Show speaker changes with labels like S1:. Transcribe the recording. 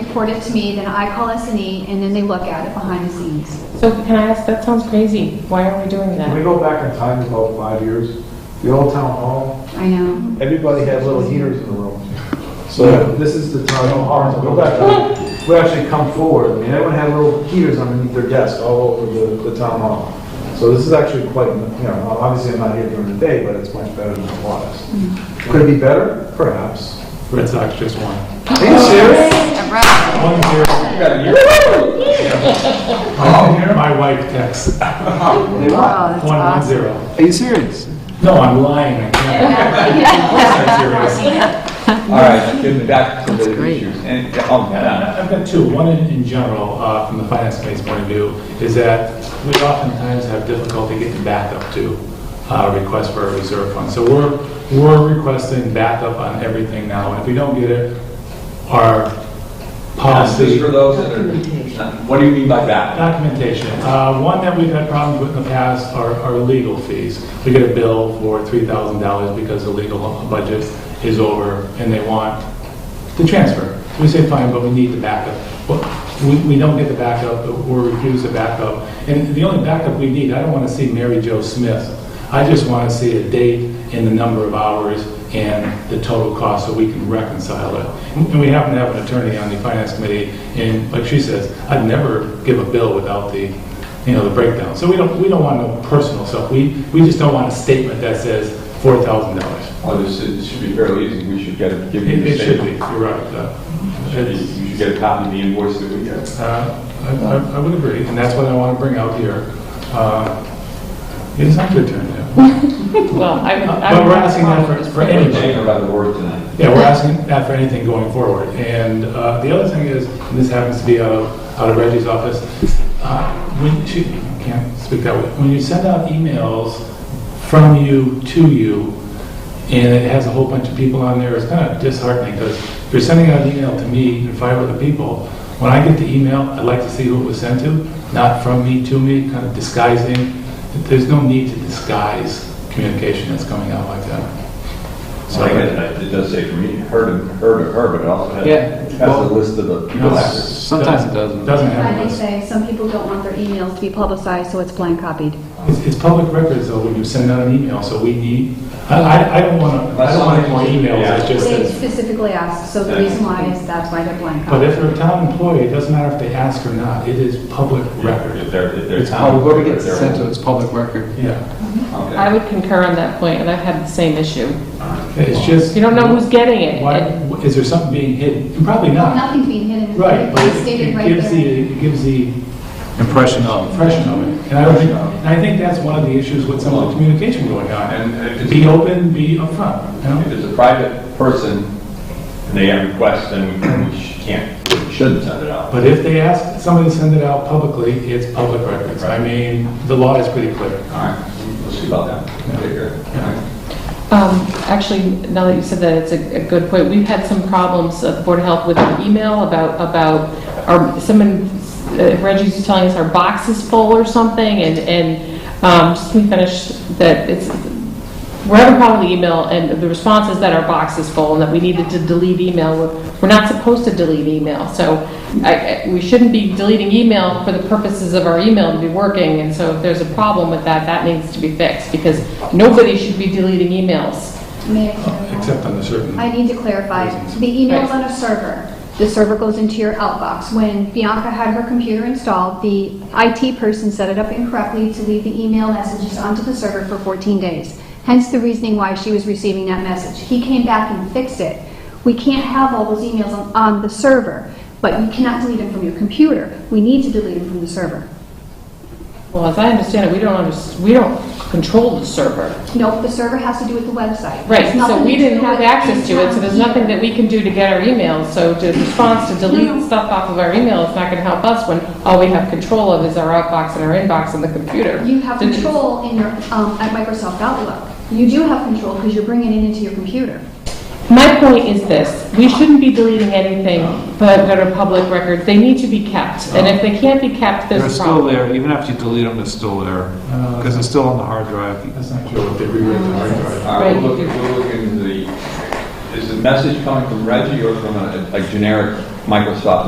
S1: report it to me, then I call S and E, and then they look at it behind the scenes.
S2: So can I ask, that sounds crazy. Why are we doing
S3: When we
S2: that?
S3: go back in time about five years, the old town hall,
S1: I know.
S3: everybody had little heaters in the room. So this is the time, go back, we actually come forward, I mean, everyone had little heaters underneath their desk all over the, the town hall. So this is actually quite, you know, obviously I'm not here during the day, but it's much better than it was. Could it be better? Perhaps.
S4: Red Sox just won.
S3: Are you serious?
S4: One zero. Oh, My wife texts,
S3: They won.
S5: Oh, that's
S4: one one
S5: awesome.
S4: zero.
S3: Are you serious?
S4: No, I'm lying, I can't. I'm serious.
S6: All right, getting back to the
S5: great.
S6: issues. And, oh,
S4: And
S6: yeah,
S4: I- I've got two. One in in general, uh, from the finance committee's point of view, is that we oftentimes have difficulty getting backup to uh, request for a reserve fund. So we're, we're requesting backup on everything now, and if we don't get it, our
S6: Just
S4: policy,
S6: for those that are, what do you mean by that?
S4: documentation. Uh, One that we've had problems with in the past are are legal fees. We get a bill for $3,000 because the legal budget is over, and they want the transfer. We say, fine, but we need the backup. Well, we, we don't get the backup, or refuse the backup. And the only backup we need, I don't want to see Mary Jo Smith. I just want to see a date and the number of hours and the total cost so we can reconcile it. And we happen to have an attorney on the finance committee, and like she says, I'd never give a bill without the, you know, the breakdown. So we don't, we don't want no personal stuff. We, we just don't want a statement that says $4,000.
S6: Oh, this is- this should be fairly easy, we should get, a- give you
S4: It
S6: the
S4: it should be,
S6: same.
S4: you're right. uh, it's-
S6: You should get a copy of the invoice that we get.
S4: Uh, I I- I would agree, and that's what I want to bring out here. Uh, It's not your turn now.
S2: Well, I would. I
S4: But
S2: would
S4: we're
S2: have a
S4: asking
S2: problem with
S4: that for-
S2: this.
S4: for
S6: We're
S4: anybody.
S6: taking about the word tonight.
S4: Yeah, we're asking that for anything going forward. And uh, the other thing is, and this happens to be out of out of Reggie's office, uh, when, she can't speak that way, when you send out emails from you to you, and it has a whole bunch of people on there, it's kind of disheartening, because if you're sending out an email to me and five other people, when I get the email, I'd like to see who it was sent to, not from me to me, kind of disguising. There's no need to disguise communication that's coming out like that.
S6: So I get it, it does say for me, heard of, heard of her, but it also
S7: Yeah.
S6: has, has a list of the people after.
S7: Sometimes it doesn't.
S4: Doesn't
S1: Why
S4: have a
S1: they
S4: list.
S1: say some people don't want their emails to be publicized, so it's blind copied.
S4: It's, it's public records though, when you send out an email, so we need, I, I, I don't want to, I don't want any more emails, that just
S1: They
S4: says,
S1: specifically asked, so the reason why is that's why they're blind
S4: but
S1: copied.
S4: if they're a town employee, it doesn't matter if they ask or not, it is public record.
S6: If they're, if they're.
S7: It's public, whoever gets it sent to it's public record.
S4: Yeah,
S2: I would concur on that point, and I've had the same issue.
S4: it's just.
S2: You don't know who's getting it.
S4: Why,
S2: It-
S4: is there something being hidden? And Probably not.
S1: Nothing's being hidden.
S4: Right, but
S1: It's
S4: it
S1: stated
S4: it
S1: right
S4: gives the,
S1: there.
S4: it gives the
S7: Impression of.
S4: impression of it. And I don't think, and I think that's one of the issues with some of the communication going on.
S6: And if it's-
S4: Be open, be upfront, you know?
S6: If it's a private person, and they have requests, then we sh- can't, we shouldn't send it out.
S4: But if they ask somebody to send it out publicly, it's public records. I mean, the law is pretty clear.
S6: All right, we'll see about that. Okay, good. All right.
S2: Um, Actually, now that you said that, it's a a good point. We've had some problems at the Board of Health with an email about, about, our someone, uh, Reggie's was telling us our box is full or something, and, and um, just let me finish, that it's, we're having a problem with the email, and the response is that our box is full, and that we needed to delete email. We're- We're not supposed to delete email, so I- I- we shouldn't be deleting email for the purposes of our email to be working, and so if there's a problem with that, that needs to be fixed, because nobody should be deleting emails.
S1: May I clarify?
S4: Oh, Except on the certain. uh,
S1: I need to clarify, the email's on a server. The server goes into your outbox. When Bianca had her computer installed, the IT person set it up incorrectly to leave the email messages onto the server for 14 days. Hence the reasoning why she was receiving that message. He came back and fixed it. We can't have all those emails on, on the server, but you cannot delete them from your computer. We need to delete them from the server.
S2: Well, as I understand it, we don't, under- we don't control the server.
S1: Nope, the server has to do with the website.
S2: Right,
S1: There's nothing
S2: so we
S1: to do
S2: didn't have
S1: with
S2: access to it, so there's nothing
S1: town.
S2: that we can do to get our emails. So the response to delete stuff off of our email is not going to help us when all we have control of is our outbox and our inbox on the computer.
S1: You have
S2: Didn't-
S1: control in your, um, at Microsoft Outlook. You do have control because you're bringing it into your computer.
S2: My point is this, we shouldn't be deleting anything but that are public records. They need to be kept, and if they can't be kept,
S7: They're
S2: there's a
S7: still
S2: problem.
S7: there, even after you delete them, they're still there,
S4: Uh,
S7: because it's still on the hard drive.
S4: That's not true, if they rewrite the hard drive.
S6: All right, we'll
S2: Right.
S6: look, we'll look into the, is the message coming from Reggie or from a a generic Microsoft